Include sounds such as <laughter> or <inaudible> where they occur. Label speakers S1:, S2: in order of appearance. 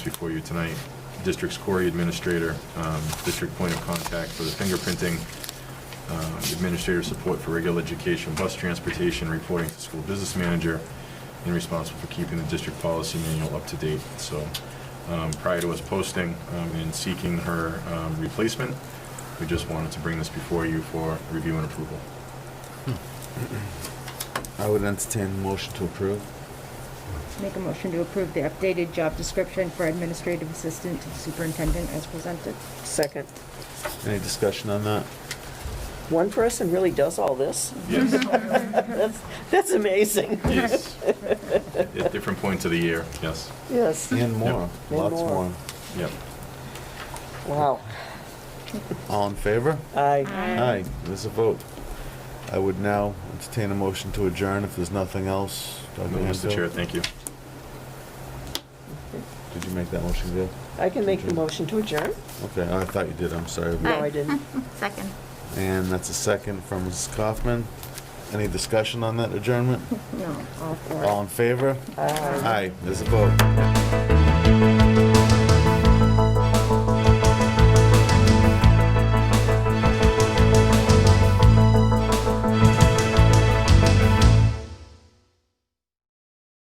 S1: before you tonight, district's Corey administrator, um, district point of contact for the fingerprinting, um, administrator support for regular education, bus transportation, reporting to school business manager, and responsible for keeping the district policy manual up to date. So um, prior to us posting um, and seeking her um, replacement, we just wanted to bring this before you for review and approval.
S2: I would entertain a motion to approve.
S3: Make a motion to approve the updated job description for administrative assistant to the superintendent as presented.
S4: Second.
S2: Any discussion on that?
S4: One person really does all this? <laughs>
S1: Yes,
S4: That's, that's amazing.
S1: yes. At different points of the year, yes,
S4: Yes.
S2: And more,
S4: And
S2: lots
S4: more.
S2: more.
S1: yep.
S4: Wow.
S2: All in favor?
S4: Aye.
S2: Aye, there's a vote. I would now entertain a motion to adjourn if there's nothing else.
S1: No,
S2: Dr.
S1: Mr. Chair,
S2: Hanfield?
S1: thank you.
S2: Did you make that motion, Gail?
S4: I can make the motion to adjourn?
S2: Okay, I thought you did, I'm sorry.
S4: No, I didn't.
S5: Second.
S2: And that's a second from Mrs. Kaufman. Any discussion on that adjournment?
S3: No, all four.
S2: All in favor?
S4: Aye.
S2: Aye, there's a vote.